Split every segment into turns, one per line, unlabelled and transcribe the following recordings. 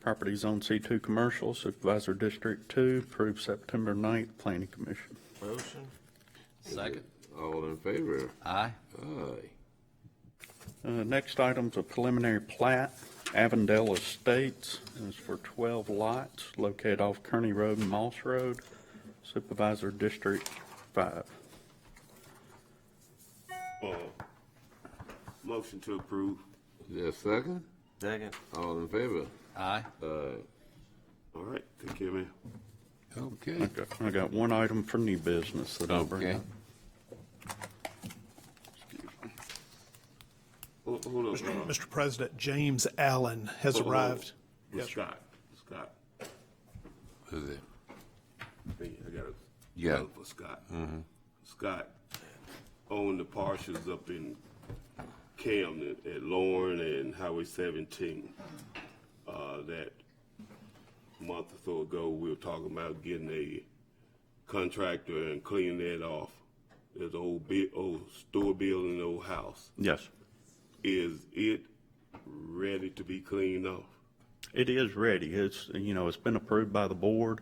Property Zone C2 Commercial, Supervisor District 2, approved September 9th, Planning Commission.
Motion.
Second.
All in favor?
Aye.
Aye.
Uh, Next item's a preliminary plat, Avondale Estates, and it's for 12 lots located off Kearney Road and Moss Road, Supervisor District 5.
Motion to approve.
Is there a second?
Second.
All in favor?
Aye.
Aye.
All right, take care, man.
I
Okay.
got- I got one item for new business that I'll bring
Okay.
up.
Hold, hold on. uh,
Mr. President, James Allen has
hold on.
arrived.
With
Yes, sir.
Scott, with Scott,
Is it?
Hey, I got a.
Yeah.
note For Scott. Scott owned the parcels up in Camden at Lauren and Highway seventeen. Uh, that month or so ago, we were talking about getting a contractor and cleaning that off. There's an old big, old store building, old house.
Yes,
Is it ready to be cleaned off?
it is ready. It's, you know, it's been approved by the board.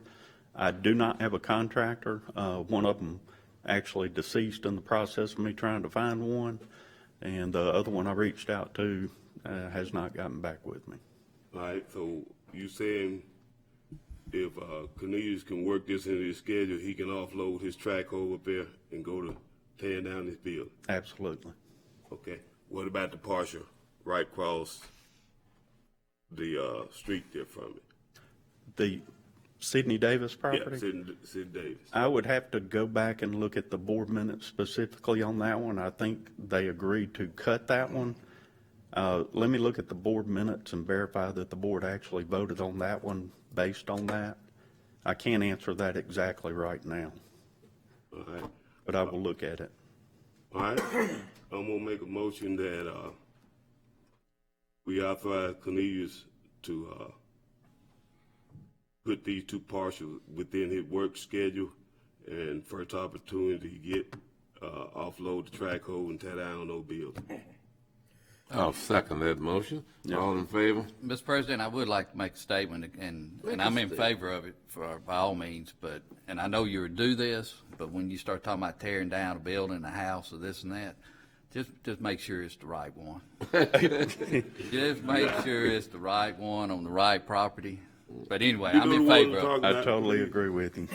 I do not have a contractor. Uh, One of them actually deceased in the process of me trying to find one, and the other one I reached out to uh, has not gotten back with me.
All right, so you saying if uh, Cornelius can work this into his schedule, he can offload his track over up there and go to tearing down this building?
Absolutely.
Okay. What about the partial right across the uh, street there from it?
The Sidney Davis
Yeah,
property?
Sid, Sid Davis.
I would have to go back and look at the board minutes specifically on that one. I think they agreed to cut that one. Uh, Let me look at the board minutes and verify that the board actually voted on that one based on that. I can't answer that exactly right now,
All right.
but I will look at it.
All right. I'm gonna make a motion that uh, we authorize Cornelius to uh, put these two parcels within his work schedule and first opportunity to get uh, offload the track hole and tear down no bill.
I'll second that motion. All in favor?
Mr. President, I would like to make a statement, and, and I'm in favor of it for, by all means, but, and I know you would do this, but when you start talking about tearing down a building, a house, or this and that, just, just make sure it's the right one. Just make sure it's the right one on the right property. But anyway, I'm in favor of,
I totally agree with you.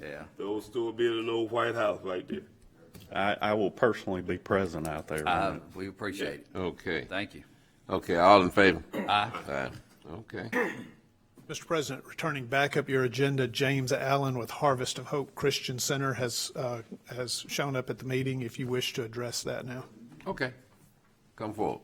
yeah.
The old store building, old White House right there.
I, I will personally be present out there. on
Uh,
it.
we appreciate it.
Okay.
Thank you.
Okay, all in favor?
Aye.
Aye. Okay.
Mr. President, returning back up your agenda, James Allen with Harvest of Hope Christian Center has, uh, has shown up at the meeting if you wish to address that now.
Okay. Come forward.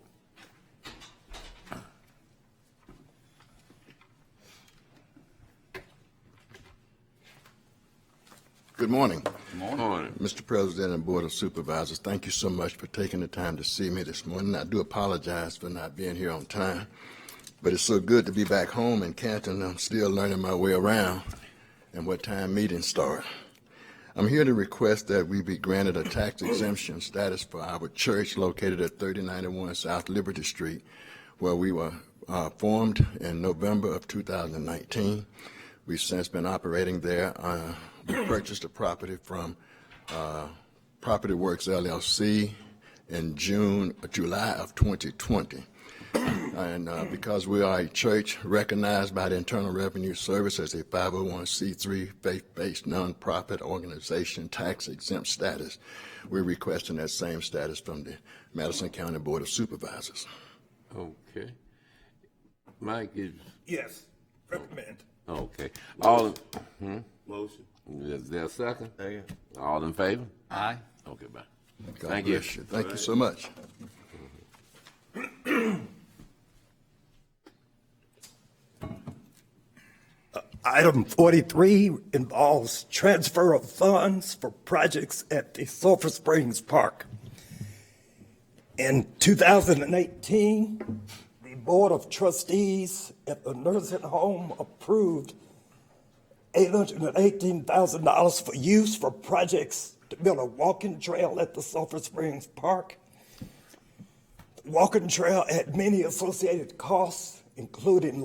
Good morning,
Morning.
Mr. President and Board of Supervisors. Thank you so much for taking the time to see me this morning. I do apologize for not being here on time, but it's so good to be back home in Canton. I'm still learning my way around and what time meetings start. I'm here to request that we be granted a tax exemption status for our church located at 3091 South Liberty Street, where we were uh, formed in November of 2019. We've since been operating there. Uh, We purchased the property from uh, Property Works LLC in June, July of 2020. And uh, because we are a church recognized by the Internal Revenue Service as a 501c3 faith-based nonprofit organization tax exempt status, we're requesting that same status from the Madison County Board of Supervisors.
Okay. Mike is,
Yes, recommend.
okay. All, is
Motion.
there a second?
Second.
All in favor?
Aye.
Okay, bye.
God
Thank you.
bless Thank you so much.
Item 43 involves transfer of funds for projects at the Sulphur Springs Park. In 2018, the Board of Trustees at the nursing home approved $818,000 for use for projects to build a walking trail at the Sulphur Springs Park. Walking trail had many associated costs, including